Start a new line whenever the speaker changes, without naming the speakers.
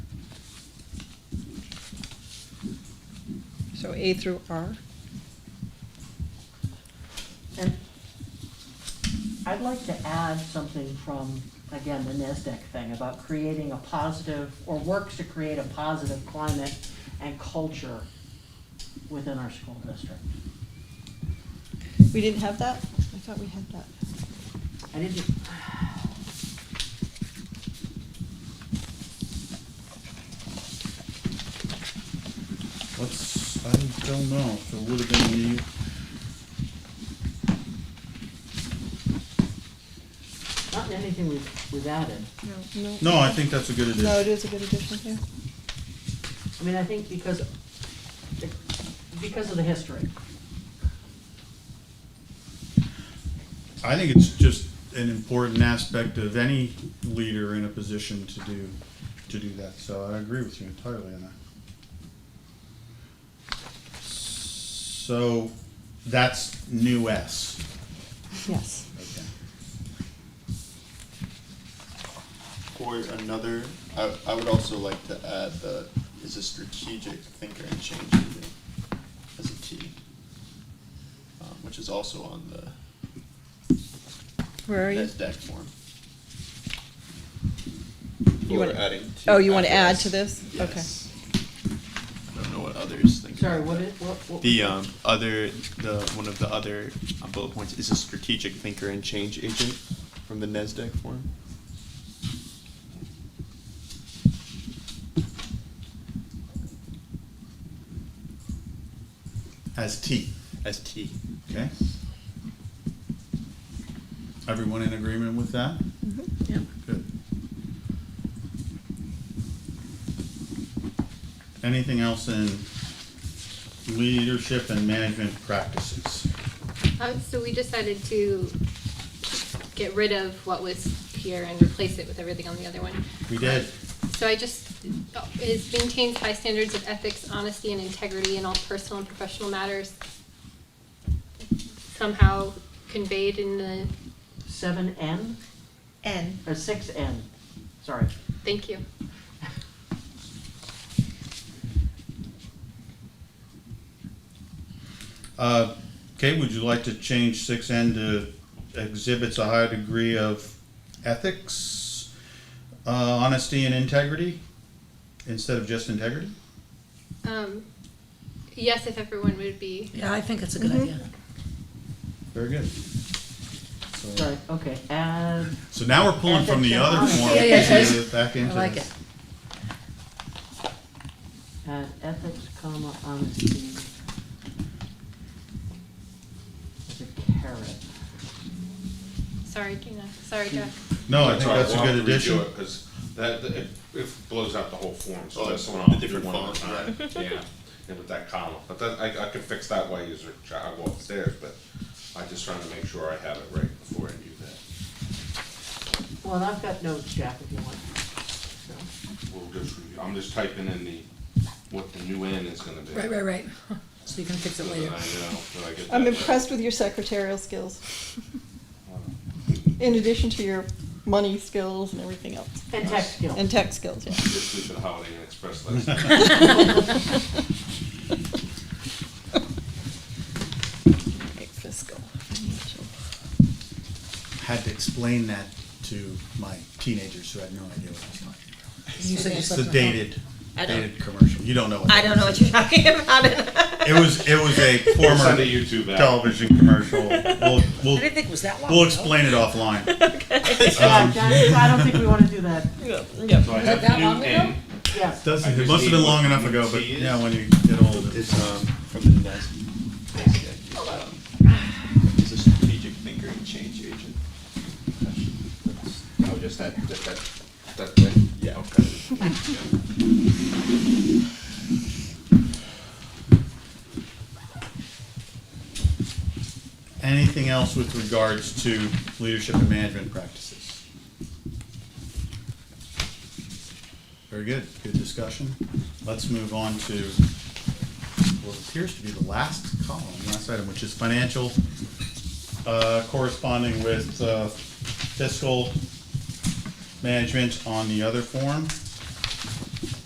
So A through R.
And I'd like to add something from, again, the NASDAQ thing about creating a positive, or works to create a positive climate and culture within our school district.
We didn't have that? I thought we had that.
I didn't,
Let's, I don't know, if it would have been the,
not in anything we've, we've added.
No.
no, I think that's a good addition.
No, it is a good addition, yeah.
I mean, I think because, because of the history.
I think it's just an important aspect of any leader in a position to do, to do that, so I agree with you entirely on that. So, that's new S.
Yes.
Okay.
Or another, I, I would also like to add that is a strategic thinker and change agent as a T, um, which is also on the
Where are you?
NASDAQ form.
You
Or
wanna-
adding to.
oh, you wanna add
S.
to this? Okay.
Yes. I don't know what others think.
Sorry,
about
what
that.
is, what, what?
The um, other, the one of the other uh, bullet points is a strategic thinker and change agent from the NASDAQ form.
As T,
ST.
okay? Everyone in agreement with that?
Mhm.
Good. Anything else in leadership and management practices?
Uh, so we decided to get rid of what was here and replace it with everything on the other one.
We did.
So I just, uh, is maintains high standards of ethics, honesty, and integrity in all personal and professional matters somehow conveyed in the,
Seven N,
N.
or six N, sorry.
thank you.
Uh, Kate, would you like to change six N to exhibits a high degree of ethics, uh, honesty and integrity, instead of just integrity?
Um, yes, if everyone would be,
Yeah, I think it's a good idea.
Very good. So-
Sorry, okay, add,
So now we're pulling from the other
Ethics and
form
honesty. Yeah, yeah.
back into
I like
this.
it.
add ethics, comma, honesty. As a carrot.
sorry, Gina, sorry, Jack.
No, I think that's a good addition.
Because that, that- it, it blows out the whole form, so
Oh,
that's
the
one I'll do
different
one at a time.
font,
Yeah, and with that column, but that, I, I can fix that while you I go upstairs, but I just trying to make sure I have it right before I do that.
Well, and I've got notes, Jack, if you want. So,
We'll just review, I'm just typing in the, what the new N is gonna be.
Right, right, right. So you can fix
So
it
that I know,
later.
that I get that
I'm
right.
impressed with your secretarial skills,
Wow.
in addition to your money skills and everything else.
And tech skills.
And tech skills, yeah.
This stupid Holiday Inn Express last night.
Right, Fiscal, financial.
had to explain that to my teenagers who had no idea what I was talking about.
You said you
It's the
slept
dated,
I don't-
dated commercial. You don't know. What
I don't know what you're talking about.
It was it was a
Send a
former
YouTube app.
television commercial. We'll
I
we'll,
didn't think it was that long.
we'll
ago.
explain it offline. Um,
Yeah, Jack, I don't think we wanna do that,
So I have
that
new
long ago?
N.
yes.
Doesn't,
I
it must have been
just
long
need
enough
what
ago, but
tea is.
yeah, when you get older.
is um, from the NAS, NASDAQ, um, is a strategic thinker and change agent.
Oh, just that, just that, that thing?
Yeah.
Okay.
Anything else with regards to leadership and management practices? Very good, good discussion. Let's move on to what appears to be the last column, last item, which is financial, uh, corresponding with uh, fiscal management on the other form.